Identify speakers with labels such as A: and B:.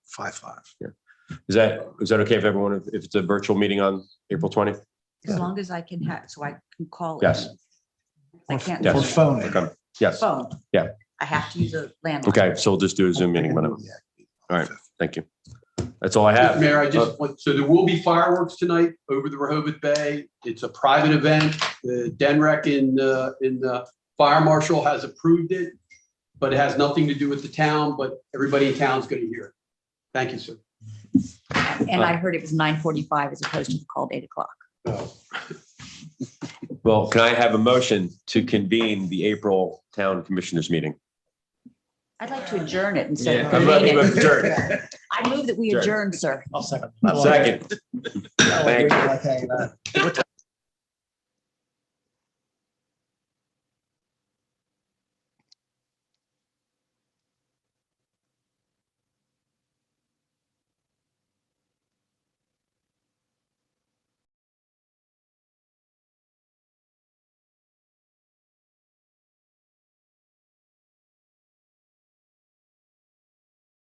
A: five, five.
B: Is that, is that okay if everyone, if- if it's a virtual meeting on April twentieth?
C: As long as I can have, so I can call. in.
B: Yes.
C: I can't.
A: Or phone it.
B: Okay. Oh. Yes,
C: Phone.
B: Yeah.
C: I have to use a landline.
B: okay, so we'll just do a Zoom meeting, whatever. All right. Thank you. That's all I have. Uh,
D: Mayor, I just want, so there will be fireworks tonight over the Rehoboth Bay. It's a private event. The Denrec in, uh, in the fire marshal has approved it, but it has nothing to do with the town, but everybody in town's going to hear it. Thank you, sir.
C: And I heard it was nine forty-five as opposed to the called eight o'clock.
B: Well, can I have a motion to convene the April Town Commissioners Meeting?
C: I'd like to adjourn it instead of.
B: I'm about to
C: convene it.
B: adjourn.
C: I move that we
B: Adjourn.
C: adjourn, sir. Oh,
E: I'll second.
B: Second. Thank you.
E: you.